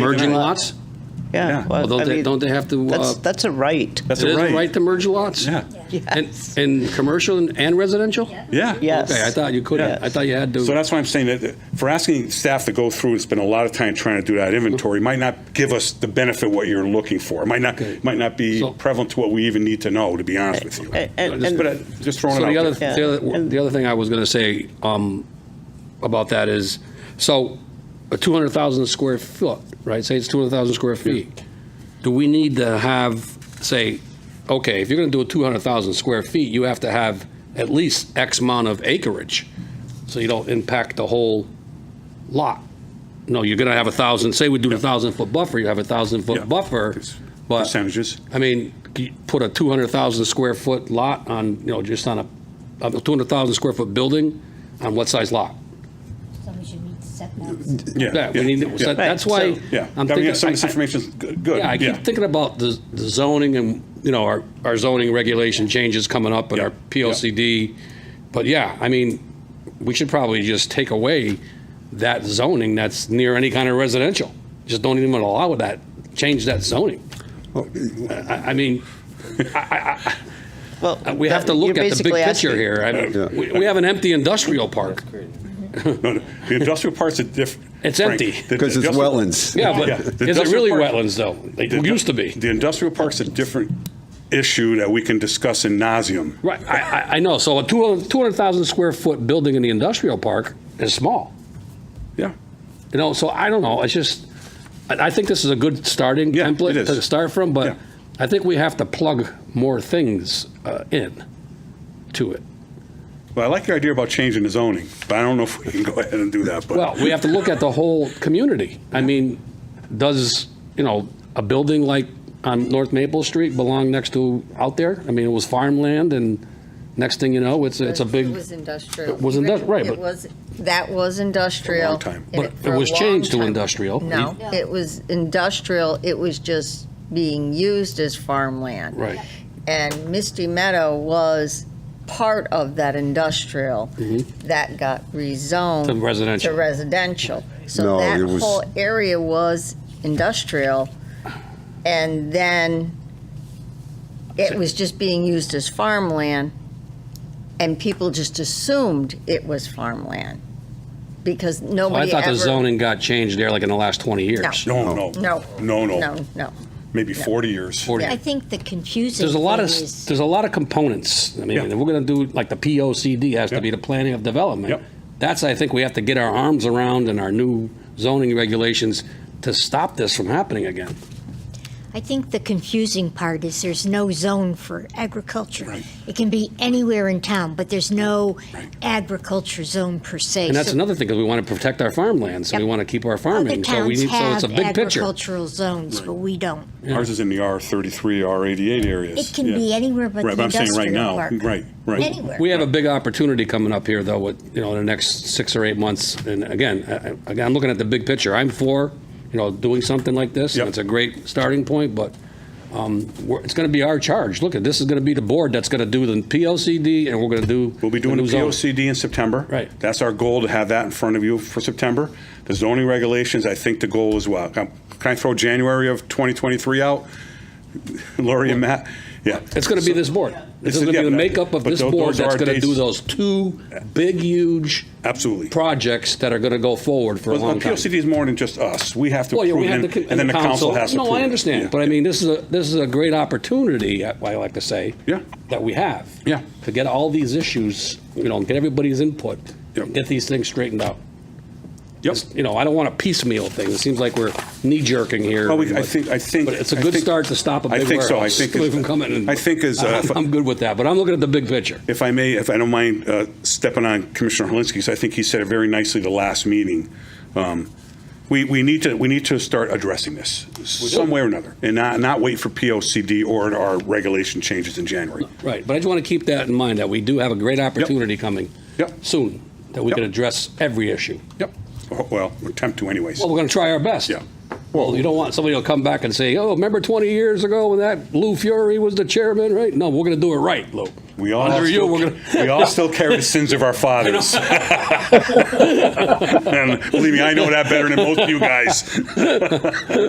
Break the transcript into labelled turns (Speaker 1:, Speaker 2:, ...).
Speaker 1: Merging
Speaker 2: Yeah.
Speaker 1: lots?
Speaker 2: Yeah.
Speaker 3: Yeah,
Speaker 1: Well,
Speaker 3: well,
Speaker 1: don't
Speaker 3: I
Speaker 1: they-
Speaker 3: mean,
Speaker 1: don't they have to, uh,
Speaker 3: That's, that's a right.
Speaker 2: That's
Speaker 1: It
Speaker 2: a
Speaker 1: is
Speaker 2: right.
Speaker 1: right to merge lots?
Speaker 2: Yeah.
Speaker 1: And,
Speaker 3: Yes.
Speaker 1: and commercial and- and residential?
Speaker 2: Yeah.
Speaker 3: Yes.
Speaker 1: Okay, I thought you couldn't. I thought you had to.
Speaker 2: So that's why I'm saying that for asking staff to go through and spend a lot of time trying to do that inventory might not give us the benefit what you're looking for. It might not
Speaker 1: Okay.
Speaker 2: might not be
Speaker 1: So-
Speaker 2: prevalent to what we even need to know. To be honest with you,
Speaker 3: And- and-
Speaker 2: just,
Speaker 3: and-
Speaker 2: but I- just throwing
Speaker 1: So
Speaker 2: it
Speaker 1: the
Speaker 2: out.
Speaker 1: other,
Speaker 2: there.
Speaker 3: there.
Speaker 1: the
Speaker 3: Yeah,
Speaker 1: other,
Speaker 3: and-
Speaker 1: the other thing I was going to say um, about that is, so a 200,000 square foot, right? Say it's 200,000 square feet. Do we need to have, say, okay, if you're going to do a 200,000 square feet, you have to have at least X amount of acreage, so you don't impact the whole lot. No, you're going to have a thousand, say we do the thousand foot buffer, you have a thousand
Speaker 2: Yeah.
Speaker 1: foot buffer,
Speaker 2: It's
Speaker 1: but.
Speaker 2: percentages.
Speaker 1: I mean, you put a 200,000 square foot lot on, you know, just on a, a 200,000 square foot building on what size lot?
Speaker 4: So we should meet setbacks.
Speaker 2: yeah,
Speaker 1: That, we need,
Speaker 2: yeah.
Speaker 1: so that's why.
Speaker 3: so-
Speaker 2: Yeah.
Speaker 1: I'm
Speaker 2: I mean,
Speaker 1: thinking-
Speaker 2: some of this
Speaker 1: I- I-
Speaker 2: information is good. good.
Speaker 1: Yeah, I keep thinking about the the zoning and, you know, our, our zoning regulation changes coming up and
Speaker 2: Yeah,
Speaker 1: our PLCD. But yeah, I mean, we should probably just take away that zoning that's near any kind of residential. Just don't even allow that, change that zoning. I, I mean,
Speaker 3: Well,
Speaker 1: We have to
Speaker 3: that-
Speaker 1: look
Speaker 3: you're
Speaker 1: at the big
Speaker 3: basically
Speaker 1: picture
Speaker 3: asking-
Speaker 1: here. I mean, we, we have an empty industrial park.
Speaker 2: No, no, the industrial parts are different.
Speaker 1: It's empty.
Speaker 5: Because it's wetlands.
Speaker 1: Yeah, but
Speaker 2: Yeah, the
Speaker 1: is it
Speaker 2: industrial
Speaker 1: really
Speaker 2: park-
Speaker 1: wetlands though? Like,
Speaker 2: The-
Speaker 1: It used to be.
Speaker 2: The industrial park's a different issue that we can discuss in nauseum.
Speaker 1: Right, I, I, I know. So a 200 200,000 square foot building in the industrial park is small.
Speaker 2: Yeah.
Speaker 1: You know, so I don't know. It's just, I, I think this is a good starting
Speaker 2: Yeah,
Speaker 1: template
Speaker 2: it is.
Speaker 1: to start from, but
Speaker 2: Yeah.
Speaker 1: I think we have to plug more things uh, in to it.
Speaker 2: Well, I like your idea about changing the zoning, but I don't know if we can go ahead and do that. But
Speaker 1: Well, we have to look at the whole community. I mean, does, you know, a building like on North Maple Street belong next to, out there? I mean, it was farmland, and next thing you know, it's, it's a
Speaker 6: It
Speaker 1: big,
Speaker 6: was industrial.
Speaker 1: It was indus- right, but-
Speaker 6: It was, that was
Speaker 2: A
Speaker 6: industrial.
Speaker 2: long time.
Speaker 6: and
Speaker 1: But
Speaker 6: for
Speaker 1: it was
Speaker 6: a long
Speaker 1: changed to
Speaker 6: time-
Speaker 1: industrial.
Speaker 6: No, it was industrial, it was just being used as farmland.
Speaker 1: right.
Speaker 6: And Misty Meadow was part of that industrial
Speaker 5: Mm-hmm.
Speaker 6: that got rezoned.
Speaker 1: To residential.
Speaker 6: To residential. So
Speaker 5: No,
Speaker 6: that
Speaker 5: it was-
Speaker 6: whole area was industrial, and then it was just being used as farmland, and people just assumed it was farmland, because
Speaker 1: Well, I
Speaker 6: nobody ever.
Speaker 1: thought the zoning got changed there like in the last 20 years.
Speaker 2: no, no,
Speaker 6: No.
Speaker 2: no, no,
Speaker 6: No, no.
Speaker 2: maybe 40 years.
Speaker 1: 40.
Speaker 4: I think the confusing
Speaker 1: There's a lot of,
Speaker 4: thing is-
Speaker 1: there's a lot of components. I mean,
Speaker 2: Yeah.
Speaker 1: if we're going to do, like, the POCD has to
Speaker 2: Yep.
Speaker 1: be the planning of development.
Speaker 2: Yep.
Speaker 1: That's, I think, we have to get our arms around in our new zoning regulations to stop this from happening again.
Speaker 4: I think the confusing part is there's no zone for agriculture.
Speaker 2: Right.
Speaker 4: It can be anywhere in town, but there's no
Speaker 2: Right.
Speaker 4: agriculture zone per se.
Speaker 1: And that's
Speaker 4: So
Speaker 1: another thing, because we want to protect our farmland, so we
Speaker 4: Yep.
Speaker 1: want to keep our
Speaker 4: Other
Speaker 1: farming. So we
Speaker 4: towns
Speaker 1: need, so it's
Speaker 4: have
Speaker 1: a big picture.
Speaker 4: agricultural zones, but we don't.
Speaker 2: Ours is in the R33, R88 areas.
Speaker 4: It can
Speaker 2: Yeah.
Speaker 4: be anywhere but
Speaker 2: Right,
Speaker 4: the
Speaker 2: but I'm saying right now,
Speaker 4: industrial park.
Speaker 2: right, right.
Speaker 4: Anywhere.
Speaker 1: We have a big opportunity coming up here, though, with, you know, in the next six or eight months. And again, I- I- again, I'm looking at the big picture. I'm for, you know, doing something like this.
Speaker 2: Yep.
Speaker 1: and It's a great starting point, but um, we're- it's going to be our charge. Look, this is going to be the board that's going to do the POCD, and we're going to do.
Speaker 2: We'll be doing the
Speaker 1: new zoning.
Speaker 2: POCD in September.
Speaker 1: Right.
Speaker 2: That's our goal, to have that in front of you for September. The zoning regulations, I think the goal is, well, can can I throw January of 2023 out? Lori and Matt? Yeah.
Speaker 1: It's going to be this board. It's
Speaker 2: It's-
Speaker 1: going to be
Speaker 2: yeah,
Speaker 1: the
Speaker 2: but-
Speaker 1: makeup of
Speaker 2: but
Speaker 1: this
Speaker 2: tho-
Speaker 1: board
Speaker 2: those are
Speaker 1: that's
Speaker 2: our
Speaker 1: going to do
Speaker 2: dates. Uh,
Speaker 1: those two big, huge
Speaker 2: Absolutely.
Speaker 1: projects that are going to go forward for a
Speaker 2: Well,
Speaker 1: long time.
Speaker 2: POCD is more than just us. We have to
Speaker 1: Well, yeah, we
Speaker 2: approve
Speaker 1: have
Speaker 2: it,
Speaker 1: the,
Speaker 2: and- and then the council has to approve
Speaker 1: No, I
Speaker 2: it.
Speaker 1: understand,
Speaker 2: Yeah.
Speaker 1: but I mean, this is a, this is a great opportunity, I I like to say.
Speaker 2: Yeah.
Speaker 1: That we have.
Speaker 2: Yeah.
Speaker 1: To get all these issues, you know, get everybody's input,
Speaker 2: Yep.
Speaker 1: get these things straightened out.
Speaker 2: Yep.
Speaker 1: You know, I don't want to piecemeal things, it seems like we're knee-jerking here.
Speaker 2: Well, we- I
Speaker 1: but-
Speaker 2: think, I think.
Speaker 1: But it's a
Speaker 2: I
Speaker 1: good
Speaker 2: think-
Speaker 1: start to stop a
Speaker 2: I
Speaker 1: big
Speaker 2: think so. I
Speaker 1: warehouse
Speaker 2: think it's-
Speaker 1: from coming. and-
Speaker 2: I think is, uh,
Speaker 1: I'm I'm good with that, but I'm looking at the big picture.
Speaker 2: If I may, if I don't mind uh, stepping on Commissioner Helinski, because I think he said it very nicely the last meeting. Um, We, we need to, we need to start addressing this some way or another, and not, not wait for POCD or our regulation changes in January.
Speaker 1: Right, but I just want to keep that in mind, that we do have a great opportunity coming.
Speaker 2: Yep.
Speaker 1: Soon, that we
Speaker 2: Yep.
Speaker 1: can address every issue.
Speaker 2: Yep. Oh, Well, attempt to anyways.
Speaker 1: Well, we're going to try our best.
Speaker 2: Yeah.
Speaker 1: Well, you don't want somebody to come back and say, oh, remember 20 years ago when that Lou Fury was the chairman, right? No, we're going to do it right, Lou.
Speaker 2: We all,
Speaker 1: Under you,
Speaker 2: still-
Speaker 1: we're gonna-
Speaker 2: we all still carry the sins of our fathers. and believe me, I know that better than most of you guys.